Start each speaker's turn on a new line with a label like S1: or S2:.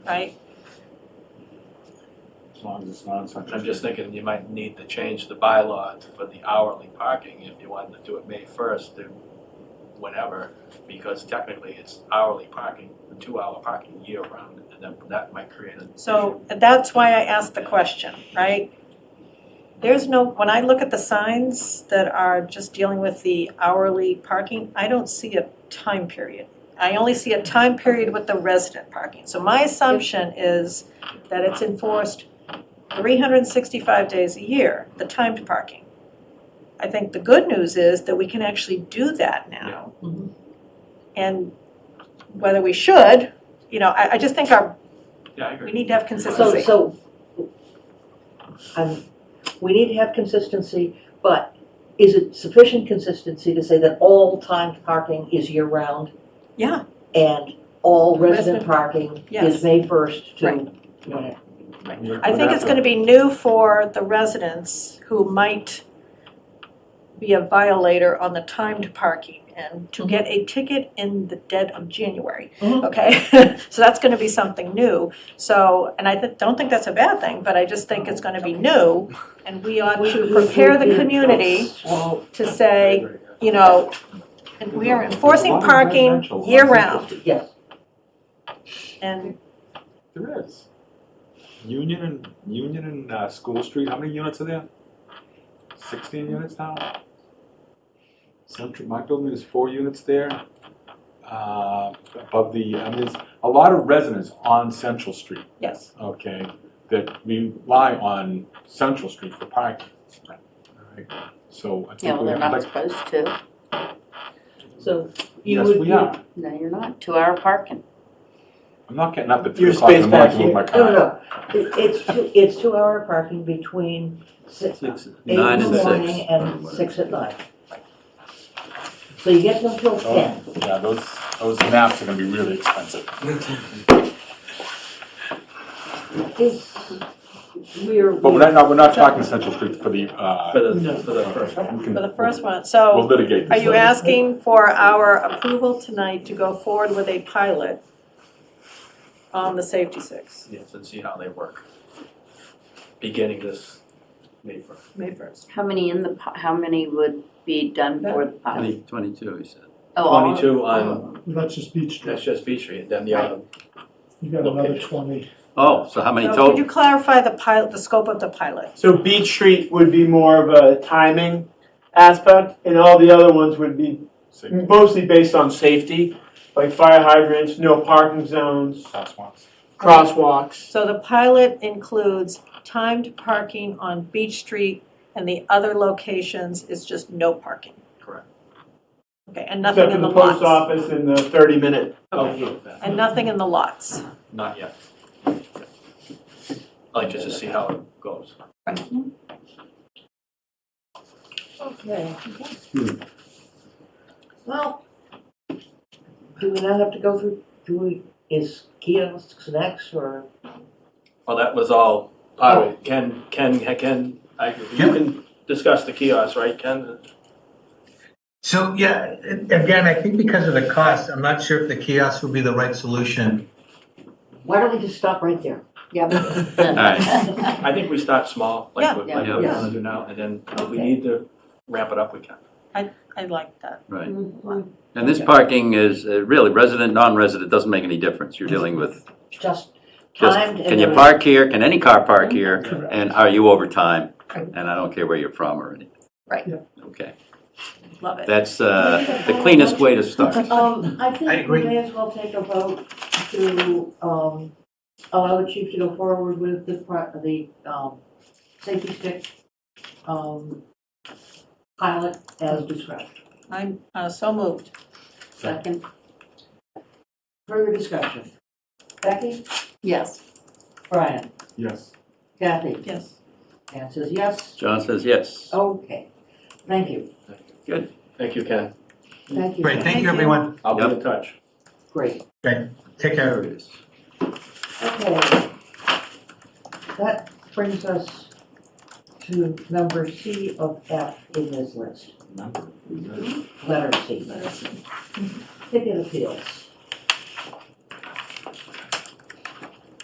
S1: right?
S2: As long as it's not such.
S3: I'm just thinking you might need to change the bylaw for the hourly parking if you wanted to do it May first to whenever, because technically it's hourly parking, the two-hour parking year-round, and then that might create a.
S1: So that's why I asked the question, right? There's no, when I look at the signs that are just dealing with the hourly parking, I don't see a time period. I only see a time period with the resident parking. So my assumption is that it's enforced three hundred and sixty-five days a year, the timed parking. I think the good news is that we can actually do that now. And whether we should, you know, I, I just think our,
S3: Yeah, I agree.
S1: we need to have
S4: So,
S1: consistency.
S4: so, um, we need to have consistency, but is it sufficient consistency to say that all timed parking is year-round?
S1: Yeah.
S4: And all
S1: Resident-
S4: resident parking
S1: yes.
S4: is May first to
S1: Right.
S4: whatever?
S1: I think it's gonna be new for the residents who might be a violator on the timed parking and to get a ticket in the dead of January,
S4: Mhm.
S1: okay? So that's gonna be something new, so, and I thi- don't think that's a bad thing, but I just think it's gonna be new and we ought to prepare the community
S2: Well,
S1: to say, you know, and we are enforcing parking year-round
S4: Yes,
S1: and
S2: There is. Union and, Union and, uh, School Street, how many units are there? Sixteen units now? Central, my building is four units there. Uh, above the, I mean, there's a lot of residents on Central Street,
S1: yes,
S2: okay, that rely on Central Street for parking. Alright, So I
S5: Yeah,
S2: think
S5: well,
S2: we
S5: they're
S2: have,
S5: not
S2: like,
S5: supposed to.
S4: so you
S2: yes,
S4: would.
S2: we are.
S5: No, you're not. Two-hour parking.
S2: I'm not getting up at three
S6: Your
S2: o'clock in the
S6: space
S2: morning
S6: back
S2: to move
S6: here.
S2: my
S4: No,
S2: car.
S4: no, no, It- it's two, it's two-hour parking between six, eight
S6: Nine
S4: in
S6: and
S4: the
S6: six.
S4: morning and six at night. So you get them till
S2: Oh.
S4: ten.
S2: Yeah, those, those maps are gonna be really expensive.
S4: Is, we're.
S2: But we're not, no, we're not talking Central Street for the, uh,
S3: For the, for the first.
S2: we
S1: for
S2: can,
S1: the first one, so.
S2: we'll litigate
S1: Are
S2: this.
S1: you asking for our approval tonight to go forward with a pilot on the safety six,
S3: Yes, and see how they work. Beginning this May first.
S1: May first?
S5: How many in the, pi- how many would be done for the pilot?
S6: Twenty- Twenty-two, he said.
S5: Oh, all of-
S3: Twenty-two on,
S7: That's just Beach
S3: that's
S7: Street.
S3: just Beach Street, then the other,
S7: You got another
S3: Location.
S7: twenty.
S6: Oh, so how many
S1: Could you
S6: total?
S1: clarify the pilot, the scope of the pilot?
S6: So
S7: Beach Street would be more of a timing aspect, and all the other ones would be
S2: Six
S7: mostly based on safety, like fire hydrants, no parking zones,
S2: crosswalks.
S7: crosswalks.
S1: So the pilot includes timed parking on Beach Street and the other locations is just no parking.
S3: Correct.
S1: Okay, and nothing in the
S7: Except for the post
S1: lots.
S7: office and the thirty minute.
S1: Okay. And nothing in the lots.
S3: Not yet. Like, just to see how it goes.
S4: Okay. Well, do we not have to go through, do we, is kiosks next or?
S3: Well, that was all, all right, Ken, Ken, Ken, I, you can discuss the kiosks, right, Ken?
S8: So, yeah, again, I think because of the cost, I'm not sure if the kiosk would be the right solution.
S4: Why don't we just stop right there?
S5: yeah.
S6: All right.
S3: I think we start small, like we, like
S6: Yeah,
S3: we're
S4: yeah.
S3: gonna do now, and then if we
S4: Okay.
S3: need to ramp it up, we can.
S1: I like that.
S6: Right. And this parking is uh, really resident, non-resident, doesn't make any difference. You're dealing with
S4: Just
S6: just,
S4: timed and.
S6: can you park here? Can any car park here? And are you over time? And I don't care where you're from or anything.
S1: Right.
S7: Yeah.
S6: Okay.
S1: Love it.
S6: That's uh, the cleanest way to start.
S4: Um, I
S8: I
S4: think we
S8: agree.
S4: may as well take a vote to, um, allow the chief to go forward with the, pro- the, um, safety stick, um, pilot as described.
S1: I'm uh, so moved.
S5: Second,
S4: Further discussion? Becky?
S5: yes.
S4: Brian?
S2: Yes.
S4: Kathy?
S1: Yes.
S4: Ann says yes.
S6: John says yes.
S1: Oh.
S4: Okay. Thank you.
S3: Thank you, Ken.
S4: Thank you.
S8: Great, thank you, everyone.
S3: I'll be
S6: Yep.
S3: in touch.
S4: Great.
S8: Take care.
S6: it is.
S4: Okay. That brings us to number C of F in this list, letter C. Ticket appeals.